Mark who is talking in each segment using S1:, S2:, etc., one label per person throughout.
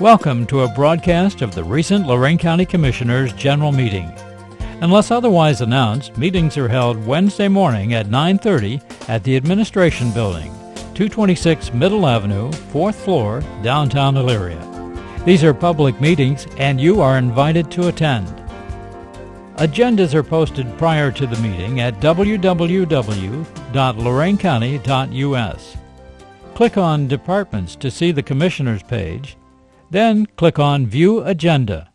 S1: Welcome to a broadcast of the recent Lorraine County Commissioners' General Meeting. Unless otherwise announced, meetings are held Wednesday morning at 9:30 at the Administration Building, 226 Middle Avenue, 4th floor, downtown Elyria. These are public meetings and you are invited to attend. Agendas are posted prior to the meeting at www.loraincounty.us. Click on Departments to see the Commissioners page, then click on View Agenda.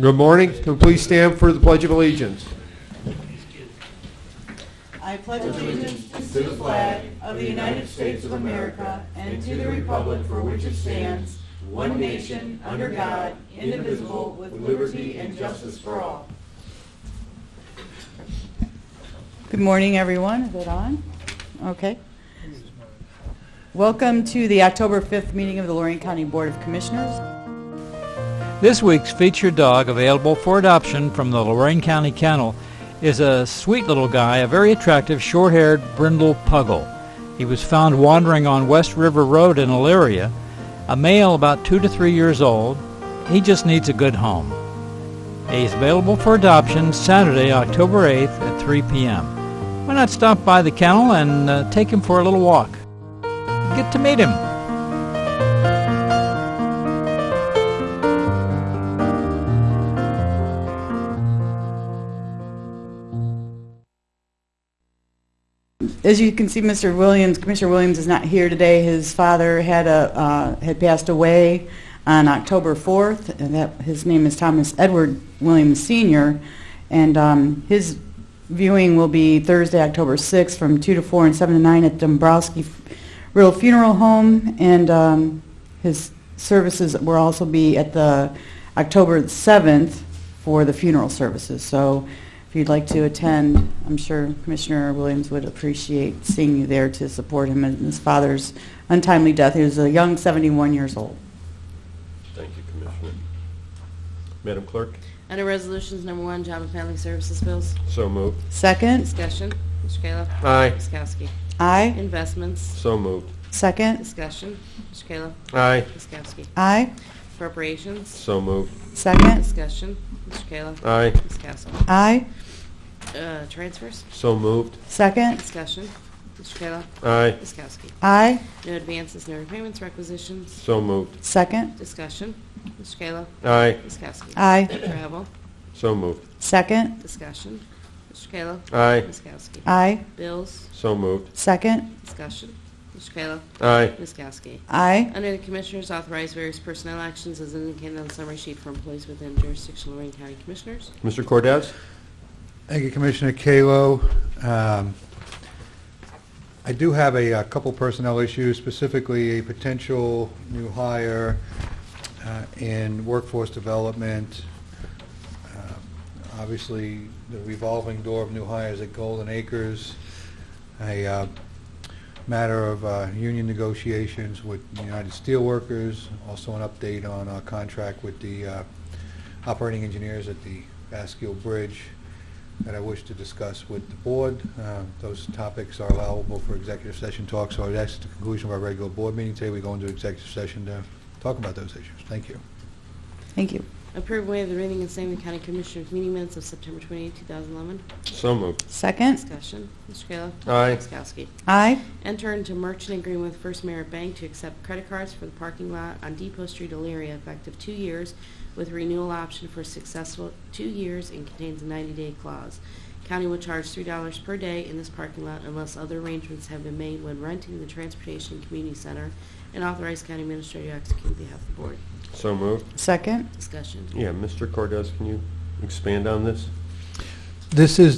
S2: Good morning. Can we please stand for the Pledge of Allegiance?
S3: I pledge allegiance to the flag of the United States of America and to the republic for which it stands, one nation, under God, indivisible, with liberty and justice for all. Good morning, everyone. Is it on? Okay. Welcome to the October 5th meeting of the Lorraine County Board of Commissioners.
S1: This week's featured dog available for adoption from the Lorraine County Kennel is a sweet little guy, a very attractive short-haired brindle puggle. He was found wandering on West River Road in Elyria, a male about two to three years old. He just needs a good home. He's available for adoption Saturday, October 8th at 3 p.m. Why not stop by the kennel and uh, take him for a little walk? Get to meet him.
S3: As you can see, Mr. Williams, Commissioner Williams is not here today. His father had a, uh, had passed away on October 4th, and that, his name is Thomas Edward Williams Sr., and um, his viewing will be Thursday, October 6th, from 2 to 4 and 7 to 9 at Dombrowski Riddle Funeral Home, and um, his services will also be at the October 7th for the funeral services. So if you'd like to attend, I'm sure Commissioner Williams would appreciate seeing you there to support him in his father's untimely death. He was a young 71 years old.
S4: Thank you, Commissioner. Madam Clerk,
S5: Under Resolutions Number One, Job and Family Services Bills.
S4: so moved.
S3: Second,
S5: Discussion. Mr. Kayla.
S2: Aye.
S5: Ms. Kowski.
S3: aye.
S5: Investments.
S4: So moved.
S3: Second,
S5: Discussion. Mr. Kayla.
S2: Aye.
S5: Ms. Kowski.
S3: aye.
S5: Appropriations.
S4: So moved.
S3: Second,
S5: Discussion. Mr. Kayla.
S4: Aye.
S5: Ms. Kowski.
S3: aye.
S5: Uh, Transfers.
S4: So moved.
S3: Second,
S5: Discussion. Mr. Kayla.
S4: Aye.
S5: Ms. Kowski.
S3: aye.
S5: No advances, no repayments, requisitions.
S4: So moved.
S3: Second,
S5: Discussion. Mr. Kayla.
S4: Aye.
S5: Ms. Kowski.
S3: aye.
S5: Travel.
S4: So moved.
S3: Second,
S5: Discussion. Mr. Kayla.
S4: Aye.
S5: Ms. Kowski.
S3: aye.
S5: Bills.
S4: So moved.
S3: Second,
S5: Discussion. Mr. Kayla.
S4: Aye.
S5: Ms. Kowski.
S3: aye.
S5: Under the Commissioners, authorize various personnel actions as indicated on the summary sheet for employees within jurisdiction of Lorraine County Commissioners.
S4: Mr. Cordez?
S6: Thank you, Commissioner Kalo. Um, I do have a uh, couple personnel issues, specifically a potential new hire uh, in workforce development. Uh, Obviously, the revolving door of new hires at Golden Acres, a uh, matter of uh, union negotiations with United Steelworkers, also an update on our contract with the uh, operating engineers at the Basque Bridge that I wish to discuss with the board. Uh, Those topics are allowable for executive session talk, so that's the conclusion of our regular board meeting today. We go into executive session to talk about those issues. Thank you.
S3: Thank you.
S5: Approve way of the reading and same in County Commissioners meeting minutes of September 28, 2011.
S4: So moved.
S3: Second,
S5: Discussion. Mr. Kayla.
S4: Aye.
S5: Ms. Kowski.
S3: aye.
S5: Enter into merchant agreement with First Merit Bank to accept credit cards for the parking lot on Depot Street, Elyria, effective two years with renewal option for successful two years and contains a 90-day clause. County will charge $3 per day in this parking lot unless other arrangements have been made when renting the Transportation Community Center and authorize county administrator to execute on behalf of the board.
S4: So moved.
S3: Second,
S5: Discussion.
S4: Yeah, Mr. Cordez, can you expand on this?
S6: This is